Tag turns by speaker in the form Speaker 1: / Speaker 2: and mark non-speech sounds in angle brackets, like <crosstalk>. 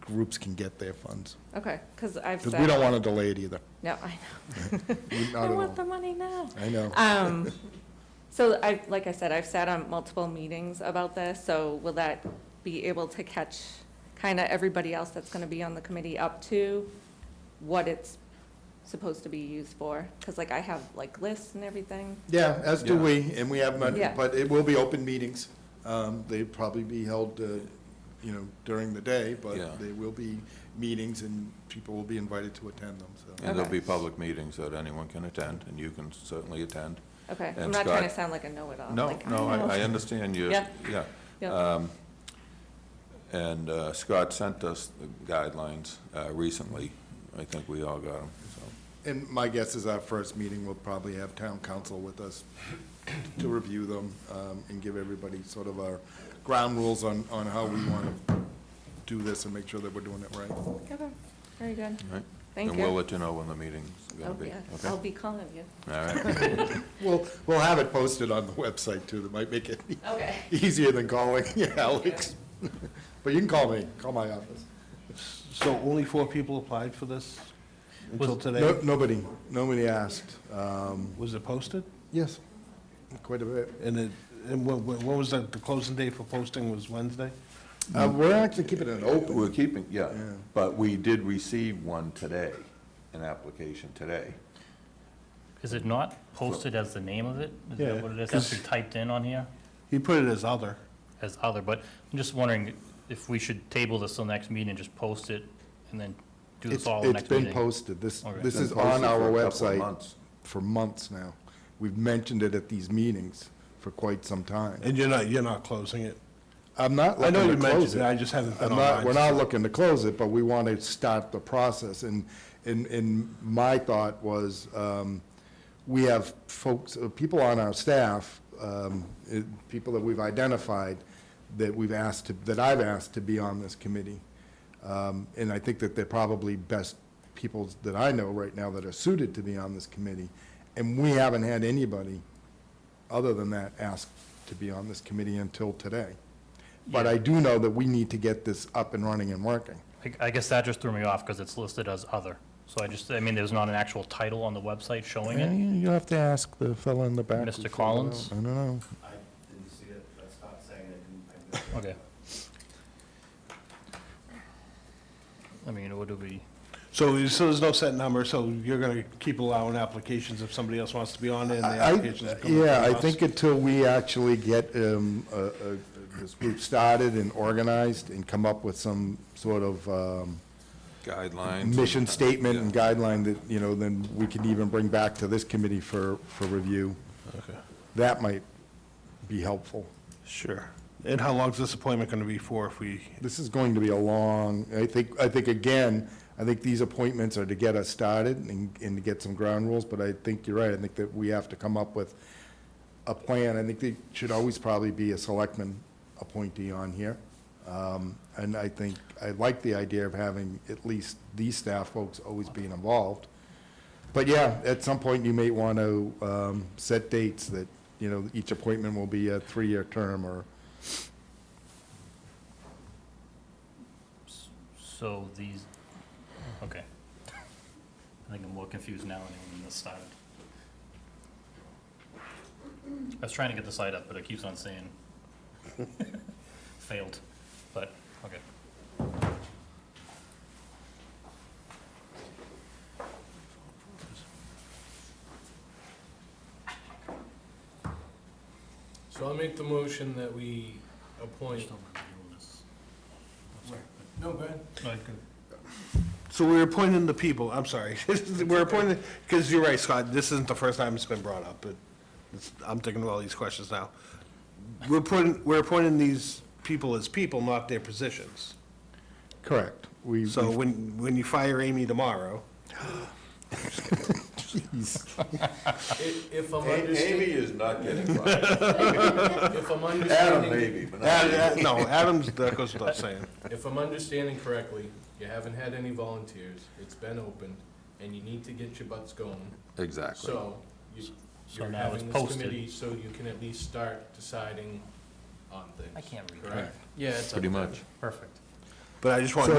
Speaker 1: groups can get their funds.
Speaker 2: Okay, because I've
Speaker 1: Because
Speaker 2: said.
Speaker 1: we don't want to delay it either.
Speaker 2: No, I
Speaker 1: We-
Speaker 2: know. I
Speaker 1: Not at
Speaker 2: want
Speaker 1: all.
Speaker 2: the money now.
Speaker 1: I know.
Speaker 2: Um, so I, like I said, I've sat on multiple meetings about this, so will that be able to catch kind of everybody else that's going to be on the committee up to what it's supposed to be used for? Because like I have like lists and everything.
Speaker 1: Yeah, as do
Speaker 3: Yeah.
Speaker 1: we, and we have, not-
Speaker 2: Yeah.
Speaker 1: but it will be open meetings. Um, They'd probably be held, uh, you know, during the day,
Speaker 3: Yeah.
Speaker 1: but they will be meetings and people will be invited to attend them, so.
Speaker 3: And there'll
Speaker 2: Okay.
Speaker 3: be public meetings that anyone can attend, and you can certainly attend.
Speaker 2: Okay, I'm
Speaker 3: And
Speaker 2: not trying
Speaker 3: Scott-
Speaker 2: to sound like a know-it-all.
Speaker 3: No,
Speaker 2: Oh, like,
Speaker 3: no,
Speaker 2: know.
Speaker 3: I, I understand you,
Speaker 2: Yeah.
Speaker 3: yeah.
Speaker 2: Yeah.
Speaker 3: Um, And uh, Scott sent us the guidelines uh, recently. I think we all got them, so.
Speaker 1: And my guess is our first meeting, we'll probably have town council with us to review them um, and give everybody sort of our ground rules on, on how we want to do this and make sure that we're doing it right.
Speaker 2: Okay, Very good.
Speaker 3: all right.
Speaker 2: Thank
Speaker 3: And we'll
Speaker 2: you.
Speaker 3: let you know when the meeting's gonna
Speaker 2: Oh,
Speaker 3: be,
Speaker 2: yeah,
Speaker 3: okay?
Speaker 2: I'll
Speaker 3: All
Speaker 2: be calling you.
Speaker 3: <laughs> right,
Speaker 1: We'll, we'll have it posted on the website too, that might make it <laughs>
Speaker 2: Okay.
Speaker 1: easier than calling <laughs> Alex. But you can call me, call my office.
Speaker 4: So only four people applied for this until
Speaker 1: No-
Speaker 4: today?
Speaker 1: Nobody, nobody asked. Um,
Speaker 4: Was it posted?
Speaker 1: Yes, quite a bit.
Speaker 4: And it, and what, what what was the, the closing day for posting was Wednesday? Mm.
Speaker 1: Uh, We're actually keeping it open.
Speaker 3: Oh, we're keeping, yeah,
Speaker 1: Yeah.
Speaker 3: but we did receive one today, an application today.
Speaker 5: Is it not posted as the name of it? Is
Speaker 4: Yeah,
Speaker 5: that what it is,
Speaker 4: 'cause-
Speaker 5: actually typed in on here
Speaker 4: He put it as other.
Speaker 5: as other? But I'm just wondering if we should table this till next meeting and just post it and then do
Speaker 1: It's
Speaker 5: this all in
Speaker 1: it's
Speaker 5: next
Speaker 1: been
Speaker 5: meeting?
Speaker 1: posted. This,
Speaker 5: Okay.
Speaker 1: this
Speaker 3: Been
Speaker 1: is
Speaker 3: posted
Speaker 1: on
Speaker 3: for
Speaker 1: our
Speaker 3: a couple of
Speaker 1: website
Speaker 3: months.
Speaker 1: for months now. We've mentioned it at these meetings for quite some time.
Speaker 4: And you're not, you're not closing it.
Speaker 1: I'm not
Speaker 4: I know
Speaker 1: looking
Speaker 4: you
Speaker 1: to close
Speaker 4: mentioned it, I
Speaker 1: it.
Speaker 4: just haven't been
Speaker 1: I'm not, we're
Speaker 4: online.
Speaker 1: not looking to close it, but we want to start the process. And, and, and my thought was, um, we have folks, uh, people on our staff, um, it- people that we've identified, that we've asked, to that I've asked to be on this committee. Um, And I think that they're probably best people that I know right now that are suited to be on this committee. And we haven't had anybody other than that asked to be on this committee until today. But I do know that we need to get this up and running and working.
Speaker 5: I- I guess that just threw me off because it's listed as other. So I just, I mean, there's not an actual title on the website showing it.
Speaker 1: You'll have to ask the fellow in the back.
Speaker 5: who Mr. filled it Collins? out.
Speaker 1: I don't know.
Speaker 6: I didn't see it, that's not saying I didn't.
Speaker 5: Okay. I mean, it would be,
Speaker 4: So, you- so there's no set number, so you're gonna keep allowing applications if somebody else wants to be on it and the applications come from
Speaker 1: Yeah, I
Speaker 4: us?
Speaker 1: think until we actually get um, a- a- this group started and organized and come up with some sort of um,
Speaker 3: Guidelines.
Speaker 1: mission statement
Speaker 3: Yeah.
Speaker 1: and guideline that, you know, then we can even bring back to this committee for, for review.
Speaker 4: Okay.
Speaker 1: That might be helpful.
Speaker 4: Sure. And how long's this appointment gonna be for if we,
Speaker 1: This is going to be a long, I think, I think again, I think these appointments are to get us started and, and to get some ground rules, but I think you're right, I think that we have to come up with a plan, I think there should always probably be a selectman appointee on here. Um, and I think, I like the idea of having at least these staff folks always being involved. But yeah, at some point, you may want to, um, set dates that, you know, each appointment will be a three-year term or,
Speaker 5: so these, okay. I think I'm more confused now than when this started. I was trying to get the site up, but it keeps on saying <laughs> failed, but, okay.
Speaker 7: So I'll make the motion that we appoint. No, go ahead.
Speaker 5: No, I could-
Speaker 4: so we're appointing the people, I'm sorry. <laughs> We're appointing, because you're right, Scott, this isn't the first time it's been brought up, but it's- I'm thinking of all these questions now. We're appointing, we're appointing these people as people, not their positions.
Speaker 1: correct. We- we
Speaker 4: So when, when you fire Amy tomorrow,
Speaker 7: If, if I'm
Speaker 3: Amy
Speaker 7: understanding,
Speaker 3: is not getting <laughs> fired.
Speaker 7: if
Speaker 3: Adam
Speaker 7: I'm understanding,
Speaker 3: maybe, but not
Speaker 4: Ad-
Speaker 3: Amy.
Speaker 4: Ad- no, Adams, that goes without saying.
Speaker 7: if I'm understanding correctly, you haven't had any volunteers, it's been open, and you need to get your butts going.
Speaker 3: Exactly.
Speaker 7: So you-
Speaker 5: So
Speaker 7: you're
Speaker 5: now it's
Speaker 7: having this
Speaker 5: posted.
Speaker 7: committee so you can at least start deciding on things.
Speaker 5: I can't read that.
Speaker 7: Correct? Yeah, it's up
Speaker 3: Pretty
Speaker 7: there.
Speaker 3: much.
Speaker 5: Perfect.
Speaker 4: But I just want to